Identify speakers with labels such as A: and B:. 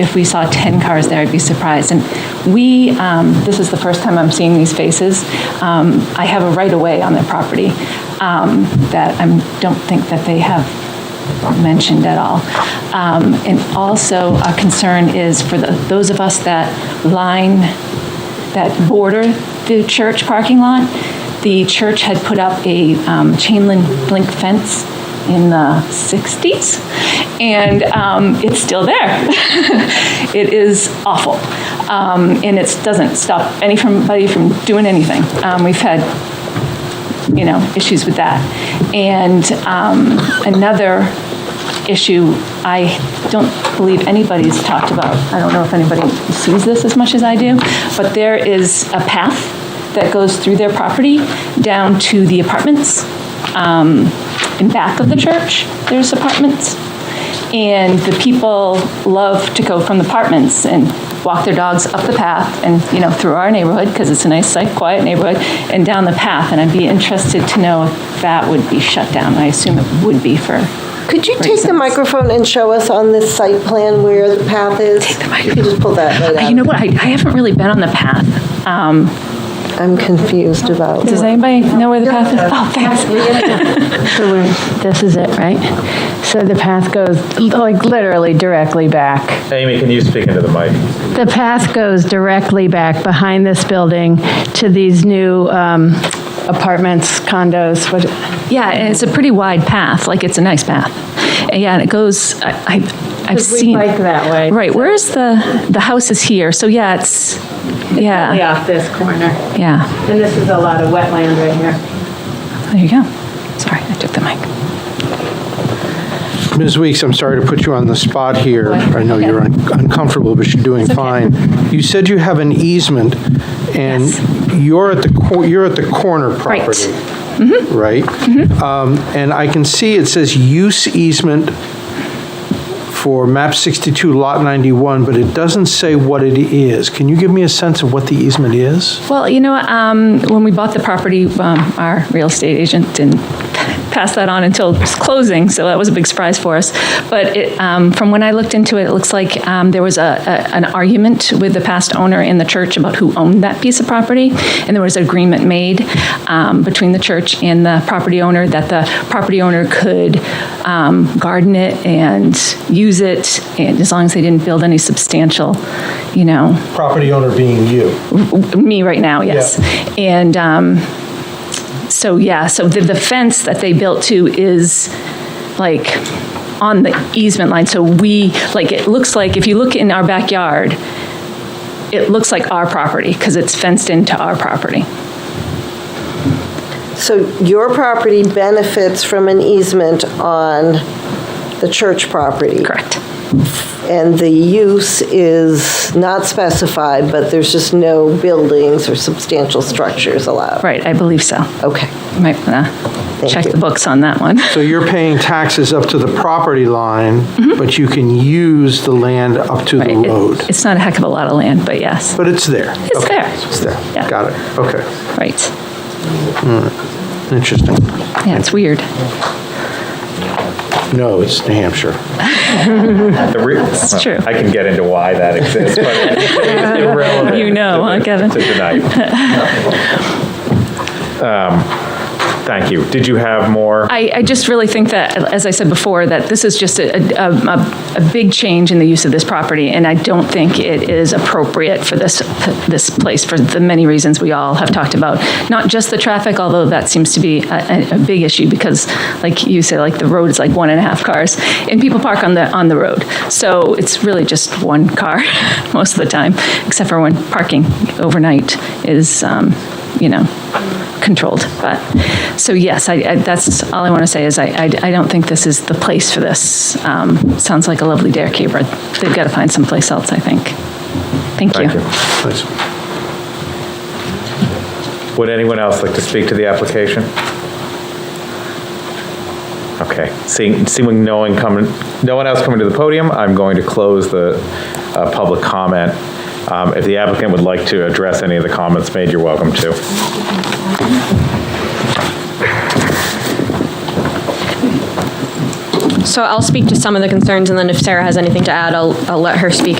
A: if we saw 10 cars there, I'd be surprised. And we, um, this is the first time I'm seeing these faces. Um, I have a right-of-way on their property um, that I don't think that they have mentioned at all. Um, And also, a concern is for the- those of us that line that border the church parking lot, the church had put up a um, chain link link fence in the 60s, and um, it's still there. It is awful, Um, and it doesn't stop anybody from doing anything. Um, We've had you know, issues with that. And um, another issue I don't believe anybody's talked about, I don't know if anybody sees this as much as I do, but there is a path that goes through their property down to the apartments. Um, In back of the church, there's apartments. And the people love to go from the apartments and walk their dogs up the path and, you know, through our neighborhood, because it's a nice, like, quiet neighborhood, and down the path. And I'd be interested to know if that would be shut down. I assume it would be for,
B: Could you take the
A: Reasons.
B: microphone and show us on this site plan where the path is? Take the microphone. You just pull that right
A: Oh, you know
B: out.
A: what, I I haven't really been on the path. Um,
B: I'm confused about.
A: Does anybody know where the path is? Oh, thanks.
C: So we're, this is it, right? So the path goes, like, literally directly back.
D: Amy, can you speak into the mic?
C: The path goes directly back behind this building to these new um, apartments, condos, what,
A: Yeah, and it's a pretty wide path, like it's a nice path. And yeah, and it goes, I, I've, I've
C: we
A: seen.
C: bike that way,
A: Right, where's the, the house is here, so yeah, it's,
C: way
A: yeah,
C: off this corner.
A: yeah,
C: And this is a lot of wetland right here.
A: there you go. Sorry, I took the mic.
E: Ms. Weeks, I'm sorry to put you on the spot here. I know you're un- uncomfortable, but you're doing fine. You said you have an easement, and
A: Yes.
E: you're at the, cor- you're at the corner
A: Right. Mm-hmm.
E: property. Right? Um, And I can see it says use easement for map 62, lot 91, but it doesn't say what it is. Can you give me a sense of what the easement is?
A: Well, you know, um, when we bought the property, um, our real estate agent didn't pass that on until it was closing, so that was a big surprise for us. But it, um, from when I looked into it, it looks like um, there was a, a, an argument with the past owner and the church about who owned that piece of property, and there was an agreement made um, between the church and the property owner that the property owner could um, garden it and use it, and as long as they didn't build any substantial, you know,
E: Property owner being you.
A: me right now, yes. And um, so, yeah, so the, the fence that they built to is like on the easement line. So we, like, it looks like, if you look in our backyard, it looks like our property because it's fenced into our property.
B: So your property benefits from an easement on the church property?
A: Correct.
B: And the use is not specified, but there's just no buildings or substantial structures allowed?
A: Right, I believe so.
B: Okay.
A: Might want to check
B: you.
A: the books on that one.
E: So you're paying taxes up to the property line, but you can use the land up to the
A: Mm-hmm. Right, it-
E: road.
A: It's not a heck of a lot of land, but yes,
E: But it's there.
A: It's
E: Okay,
A: there.
E: It's there.
A: Yeah.
E: Got it. Okay.
A: right.
E: Interesting.
A: Yeah, it's weird.
E: No, it's New Hampshire.
A: It's
D: It's
A: true.
D: I can get into why that exists, but it's irrelevant.
A: You know, huh,
D: to-
A: Kevin?
D: To tonight. Um, Thank you. Did you have more?
A: I, I just really think that, as I said before, that this is just a, a, a, a big change in the use of this property, and I don't think it is appropriate for this, this place for the many reasons we all have talked about. Not just the traffic, although that seems to be a, a, a big issue, because like you say, like the road is like one and a half cars, and people park on the, on the road. So it's really just one car most of the time, except for when parking overnight is, um, you know, controlled. But, so yes, I, I- that's all I want to say is I, I I don't think this is the place for this. Um, Sounds like a lovely dare caper. They've got to find someplace else, I think. Thank
D: Thank
A: you.
D: you.
E: Nice.
D: Would anyone else like to speak to the application? Okay, seeing, seeing no one coming, no one else coming to the podium, I'm going to close the uh, public comment. Um, If the applicant would like to address any of the comments made, you're welcome to.
F: So I'll speak to some of the concerns, and then if Sarah has anything to add, I'll, I'll let her speak